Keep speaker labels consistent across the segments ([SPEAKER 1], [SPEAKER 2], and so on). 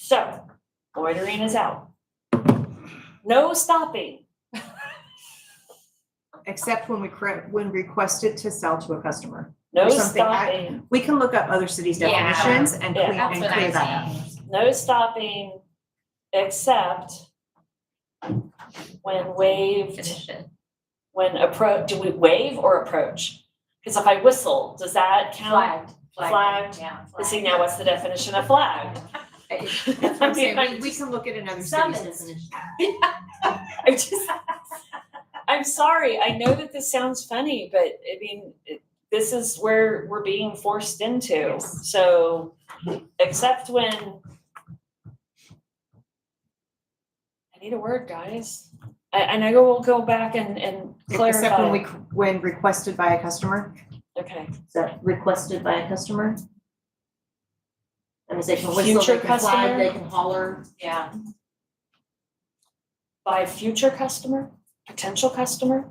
[SPEAKER 1] So loitering is out. No stopping.
[SPEAKER 2] except when we cre- when requested to sell to a customer.
[SPEAKER 1] No
[SPEAKER 2] Or something, I-
[SPEAKER 1] stopping.
[SPEAKER 2] We can look up other cities'
[SPEAKER 3] Yeah.
[SPEAKER 2] definitions and
[SPEAKER 1] Yeah.
[SPEAKER 2] clean
[SPEAKER 3] That's
[SPEAKER 2] and
[SPEAKER 3] what
[SPEAKER 2] clear
[SPEAKER 3] I'm
[SPEAKER 2] that up.
[SPEAKER 3] saying.
[SPEAKER 1] No stopping except when waived,
[SPEAKER 3] Finish it.
[SPEAKER 1] when approach, do we wave or approach? Because if I whistle, does that count?
[SPEAKER 3] Flagged.
[SPEAKER 1] Flagged.
[SPEAKER 3] Yeah.
[SPEAKER 1] See, now what's the definition of flag?
[SPEAKER 2] That's what I'm saying. We- We can look at another city's
[SPEAKER 3] Summons.
[SPEAKER 2] definition.
[SPEAKER 1] I'm just, I'm sorry. I know that this sounds funny, but I mean, it- this is where we're being forced into.
[SPEAKER 3] Yes.
[SPEAKER 1] So, except when I need a word, guys. I- And I will go back and, and
[SPEAKER 2] Except when
[SPEAKER 1] clarify.
[SPEAKER 2] we, c- when requested by a customer,
[SPEAKER 1] Okay.
[SPEAKER 4] Is that requested by a customer? That means they can
[SPEAKER 1] Future
[SPEAKER 4] whistle, they can
[SPEAKER 1] customer?
[SPEAKER 4] flag, they can holler.
[SPEAKER 3] Yeah.
[SPEAKER 1] By future customer, potential customer.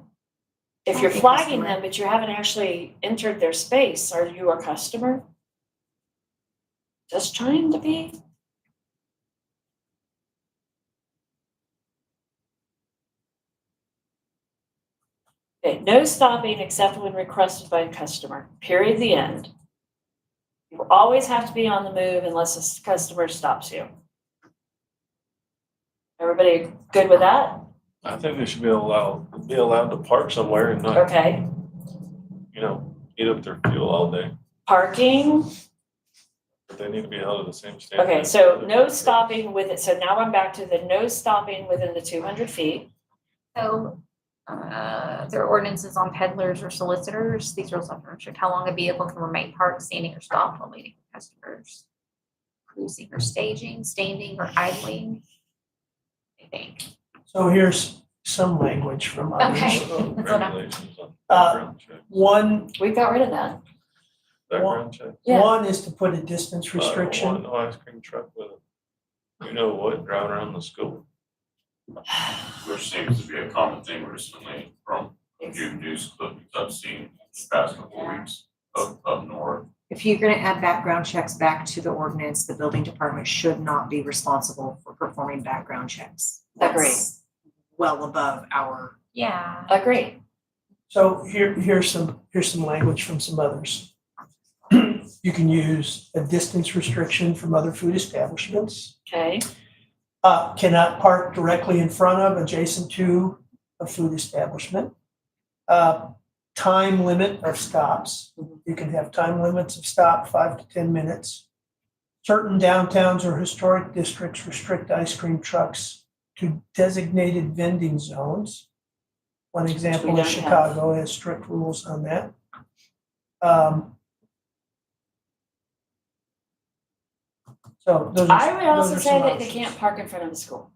[SPEAKER 1] If you're
[SPEAKER 2] Target
[SPEAKER 1] flagging
[SPEAKER 2] customer.
[SPEAKER 1] them, but you haven't actually entered their space, are you a customer? Just trying to be. Okay, no stopping except when requested by a customer, period, the end. You always have to be on the move unless a s- customer stops you. Everybody good with that?
[SPEAKER 5] I think they should be allowed, be allowed to park somewhere and not,
[SPEAKER 1] Okay,
[SPEAKER 5] you know, eat up their fuel all day,
[SPEAKER 1] parking,
[SPEAKER 5] but they need to be held to the same standard.
[SPEAKER 1] okay, so no stopping with it, so now I'm back to the no stopping within the two hundred feet.
[SPEAKER 3] So, uh, there are ordinances on peddlers or solicitors. These rules often restrict how long a vehicle can remain parked, standing or stopped while waiting for customers. Cruising or staging, standing or idling. I think.
[SPEAKER 6] So here's some language from others.
[SPEAKER 3] Okay. That's what I'm-
[SPEAKER 5] Regulations on
[SPEAKER 6] Uh,
[SPEAKER 5] background check,
[SPEAKER 6] One,
[SPEAKER 1] We got rid of that.
[SPEAKER 5] background check.
[SPEAKER 1] Yeah.
[SPEAKER 6] one is to put a distance
[SPEAKER 5] I don't want
[SPEAKER 6] restriction.
[SPEAKER 5] no ice cream truck with, you know what, driving around the school.
[SPEAKER 7] Which seems to be a common thing recently from new news clippings I've seen the past couple weeks up, up north.
[SPEAKER 2] if you're gonna add background checks back to the ordinance, the building department should not be responsible for performing background checks.
[SPEAKER 1] Agreed.
[SPEAKER 2] That's Well above our,
[SPEAKER 3] Yeah.
[SPEAKER 1] Agree.
[SPEAKER 6] So here, here's some, here's some language from some others. You can use a distance restriction from other food establishments.
[SPEAKER 1] Okay,
[SPEAKER 6] Uh, cannot park directly in front of, adjacent to a food establishment. Uh, time limit of stops. You can have time limits of stop, five to ten minutes. Certain downtowns or historic districts restrict ice cream trucks to designated vending zones. One example
[SPEAKER 1] don't
[SPEAKER 6] is
[SPEAKER 1] have.
[SPEAKER 6] Chicago has strict rules on that. Um, So those are.
[SPEAKER 1] I would also
[SPEAKER 6] those are
[SPEAKER 1] say
[SPEAKER 6] some
[SPEAKER 1] that they
[SPEAKER 6] options.
[SPEAKER 1] can't park in front of the school.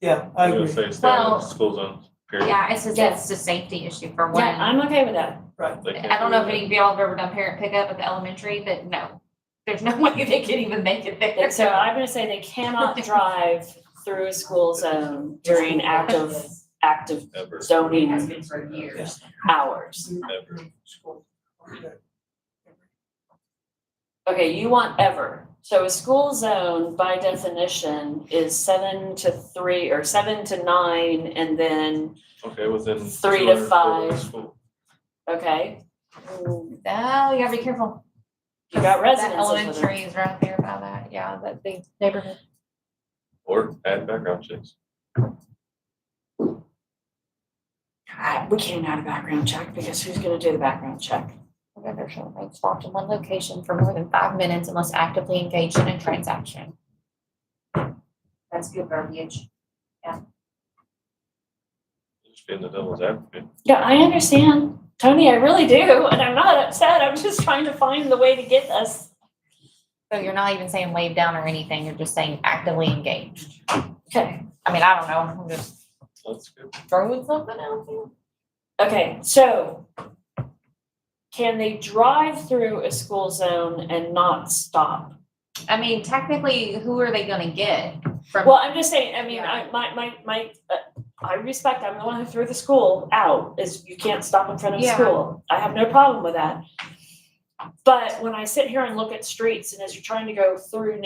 [SPEAKER 6] Yeah, I
[SPEAKER 5] You know,
[SPEAKER 6] agree.
[SPEAKER 5] Say it's down in
[SPEAKER 3] Well,
[SPEAKER 5] the school zone, period.
[SPEAKER 3] Yeah, it's just, it's a safety issue for one.
[SPEAKER 1] Yeah, I'm okay with that.
[SPEAKER 5] They can't
[SPEAKER 3] I don't know if
[SPEAKER 5] do
[SPEAKER 3] any of y'all have ever done parent pickup at the elementary, but no, there's no way they could even make it there.
[SPEAKER 1] So I'm gonna say they cannot drive through a school zone during active, active
[SPEAKER 5] that ever.
[SPEAKER 1] zoning
[SPEAKER 3] been for years.
[SPEAKER 1] hours.
[SPEAKER 5] Ever.
[SPEAKER 1] Okay, you want ever. So a school zone by definition is seven to three or seven to nine and then,
[SPEAKER 5] Okay, within.
[SPEAKER 1] Three to
[SPEAKER 5] 200 feet of the
[SPEAKER 1] five.
[SPEAKER 5] school.
[SPEAKER 1] okay. You
[SPEAKER 3] Oh, you gotta be careful.
[SPEAKER 1] got
[SPEAKER 3] That
[SPEAKER 1] residences with it.
[SPEAKER 3] elementary is right there by that, yeah, that big neighborhood.
[SPEAKER 5] Or add background checks.
[SPEAKER 1] I- we can't add a background check because who's gonna do the background check?
[SPEAKER 3] Vendor shall remain stopped in one location for more than five minutes unless actively engaged in a transaction. That's good verbiage.
[SPEAKER 5] Just being the devil's advocate.
[SPEAKER 1] Yeah, I understand, Tony, I really do, and I'm not upset, I'm just trying to find the way to get us.
[SPEAKER 3] So you're not even saying laid down or anything, you're just saying actively engaged.
[SPEAKER 1] Okay.
[SPEAKER 3] I mean, I don't know, I'm just
[SPEAKER 5] That's good.
[SPEAKER 3] throwing something out there.
[SPEAKER 1] Okay, so can they drive through a school zone and not stop?
[SPEAKER 3] I mean, technically, who are they gonna get from?
[SPEAKER 1] Well, I'm just saying, I mean, I,
[SPEAKER 3] Yeah.
[SPEAKER 1] my, my, my, uh, I respect, I'm the one who threw the school out, is you can't stop in front of
[SPEAKER 3] Yeah.
[SPEAKER 1] school. I have no problem with that. But when I sit here and look at streets and as you're trying to go through